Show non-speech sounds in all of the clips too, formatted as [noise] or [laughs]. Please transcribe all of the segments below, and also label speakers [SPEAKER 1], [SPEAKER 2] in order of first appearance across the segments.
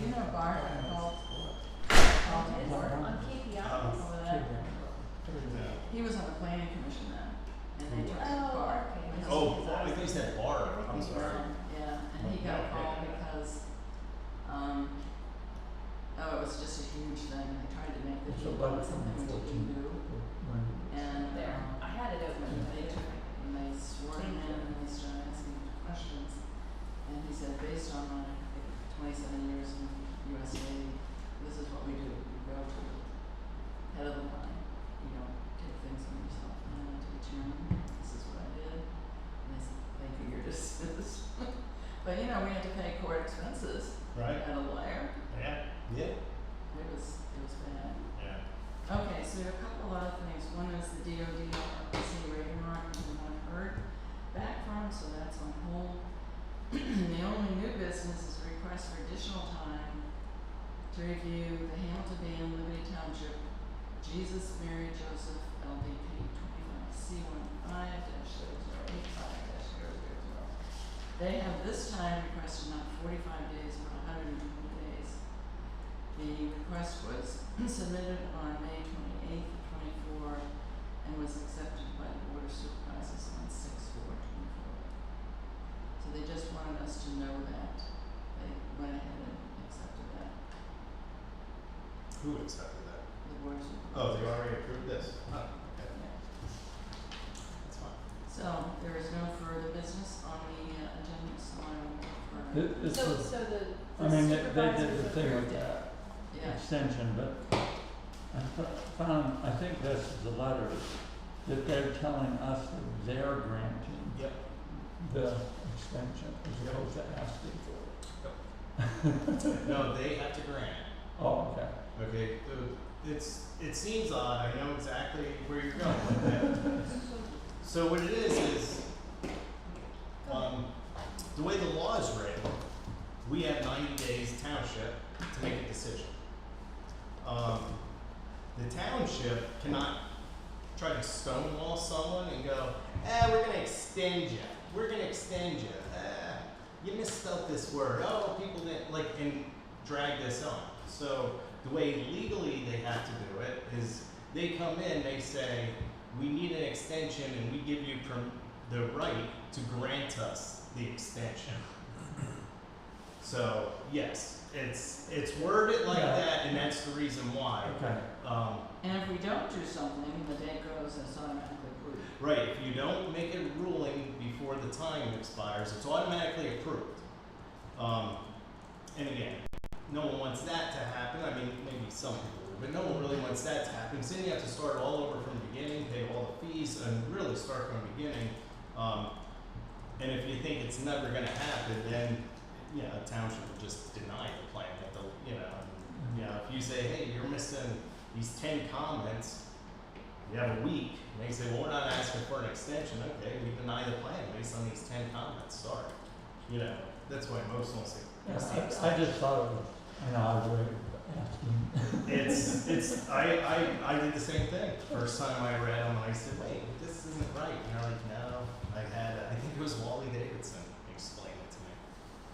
[SPEAKER 1] you know Barbara called called his work on KPIs over there. He was on the planning commission then, and they took
[SPEAKER 2] Oh,
[SPEAKER 1] Barb.
[SPEAKER 2] okay.
[SPEAKER 1] because
[SPEAKER 3] Oh,
[SPEAKER 1] he's
[SPEAKER 3] I
[SPEAKER 1] a-
[SPEAKER 3] thought you said bar, I'm sorry.
[SPEAKER 1] Yeah, and he got a call because, um, oh, it was just a huge thing, they tried to make the
[SPEAKER 4] So
[SPEAKER 1] deal
[SPEAKER 4] by the
[SPEAKER 1] something we didn't
[SPEAKER 4] 14.
[SPEAKER 1] do, and,
[SPEAKER 2] There,
[SPEAKER 1] um,
[SPEAKER 2] I had it open, but
[SPEAKER 1] they
[SPEAKER 2] it
[SPEAKER 1] took, and they swore him in, and they started asking him questions, and he said, based on my twenty-seven years in USA, this is what we do, we go to the head of the line, you don't take things on yourself, and I went to the chairman, this is what I did, and they said, thank you, you're [laughs] dismissed. But you know, we had to pay court expenses
[SPEAKER 3] Right?
[SPEAKER 1] and a lawyer.
[SPEAKER 3] Yeah. Yeah.
[SPEAKER 1] It was it was bad.
[SPEAKER 3] Yeah.
[SPEAKER 1] Okay, so there are a couple of other things. One is the DOD city rating mark we haven't heard back from, so that's on hold. [clears throat] the only new business is a request for additional time to review the Hamilton Bay Liberty Township Jesus Mary Joseph LDP twenty-five C one five dash zero zero eight five dash zero zero zero. They have this time requested not forty-five days, but hundred and twenty days. The request was [clears throat] submitted on May twenty-eighth, twenty-four, and was accepted by the Board of Supervisors on six four twenty-four. So they just wanted us to know that, they went ahead and accepted that,
[SPEAKER 3] Who accepted that?
[SPEAKER 1] the Board of Supervisors.
[SPEAKER 3] Oh, they already approved this. Oh, okay.
[SPEAKER 1] Yeah.
[SPEAKER 3] That's fine.
[SPEAKER 1] So there is no further business on the uh, agenda, so I will look for,
[SPEAKER 4] Th- This
[SPEAKER 2] So,
[SPEAKER 4] was,
[SPEAKER 2] so the,
[SPEAKER 4] I
[SPEAKER 2] the
[SPEAKER 4] mean, they, they did
[SPEAKER 2] supervisors
[SPEAKER 4] the thing
[SPEAKER 2] approved
[SPEAKER 4] with
[SPEAKER 2] it.
[SPEAKER 4] the
[SPEAKER 1] yeah,
[SPEAKER 4] extension, but I fo- found, I think this is the letter, that they're telling us that they're granting
[SPEAKER 3] Yep.
[SPEAKER 4] the extension as opposed to asking for
[SPEAKER 3] No, they have to grant.
[SPEAKER 4] it. Oh, okay.
[SPEAKER 3] Okay, the- it's, it seems odd, I know exactly where you're going with that. So what it is, is, um, the way the law is written, we have ninety days township to make a decision. Um, the township cannot try to stonewall someone and go, eh, we're gonna extend you, we're gonna extend you, eh, you misspelled this word, oh, people didn't, like, and drag this on. So, the way legally they have to do it is they come in, they say, we need an extension and we give you perm- the right to grant us the extension. So, yes, it's, it's worded like
[SPEAKER 4] Yeah.
[SPEAKER 3] that and that's the reason why.
[SPEAKER 4] Okay.
[SPEAKER 3] Um,
[SPEAKER 1] and if we don't do something, the day goes and it's automatically approved.
[SPEAKER 3] right, if you don't make a ruling before the time expires, it's automatically approved. Um, and again, no one wants that to happen. I mean, maybe some people do, but no one really wants that to happen. So then you have to start all over from the beginning, pay all the fees, and really start from the beginning. Um, and if you think it's never going to happen, then you know, a township will just deny the plan. That the, you know, and, you know, if you say, hey, you're missing these ten comments, you have a week, and they say, well, we're not asking for an extension. Okay, we deny the plan based on these ten comments. Sorry, you know. That's why most won't say.
[SPEAKER 4] Yeah,
[SPEAKER 3] "Yes, the
[SPEAKER 4] I,
[SPEAKER 3] extension."
[SPEAKER 4] I just thought it was an odd way of asking.
[SPEAKER 3] It's it's I, I I did the same thing. First time I read them, I said, "Wait, this isn't right." And they're like, "No." I had I think it was Wally Davidson explained it to me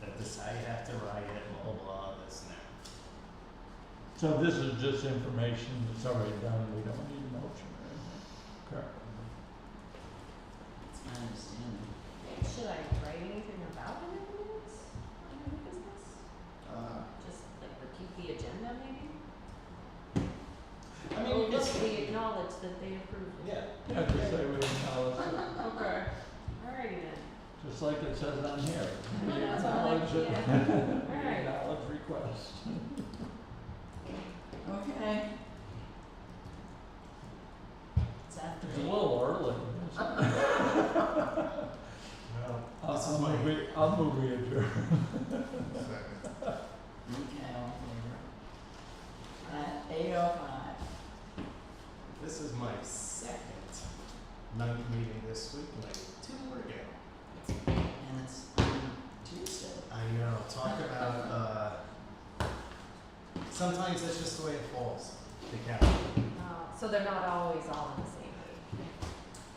[SPEAKER 3] that this I have to write it, blah blah, blah this and that.
[SPEAKER 4] So this is just information that's already done, we don't need a motion or anything. Correct.
[SPEAKER 1] That's my understanding.
[SPEAKER 2] Should I write anything about it in the minutes? Under new business?
[SPEAKER 3] Uh,
[SPEAKER 2] Just like repeat the agenda maybe?
[SPEAKER 3] I
[SPEAKER 2] Oh,
[SPEAKER 3] mean, you
[SPEAKER 2] look,
[SPEAKER 3] just-
[SPEAKER 2] we acknowledge that they approved it.
[SPEAKER 3] yeah,
[SPEAKER 4] Yeah, just say we acknowledge it,
[SPEAKER 1] Okay.
[SPEAKER 2] Alrighty then.
[SPEAKER 4] just like it says on
[SPEAKER 3] [laughs]
[SPEAKER 4] here. We
[SPEAKER 2] That's all I-
[SPEAKER 4] acknowledge it. [laughs]
[SPEAKER 2] yeah.
[SPEAKER 4] We
[SPEAKER 2] Alright.
[SPEAKER 4] acknowledge request.
[SPEAKER 1] Okay. It's after
[SPEAKER 4] It's a
[SPEAKER 1] me.
[SPEAKER 4] little early. isn't it?
[SPEAKER 3] well,
[SPEAKER 4] I'll,
[SPEAKER 3] This is
[SPEAKER 4] I'll
[SPEAKER 3] my-
[SPEAKER 4] move we, I'll move we adjourn.
[SPEAKER 1] Okay, all in favor? At eight oh five.
[SPEAKER 3] this is my second night meeting this week, like two more ago.
[SPEAKER 1] And it's on Tuesday.
[SPEAKER 3] I know. Talk about uh, sometimes that's just the way it falls. The calendar.
[SPEAKER 2] Uh, so they're not always all in the same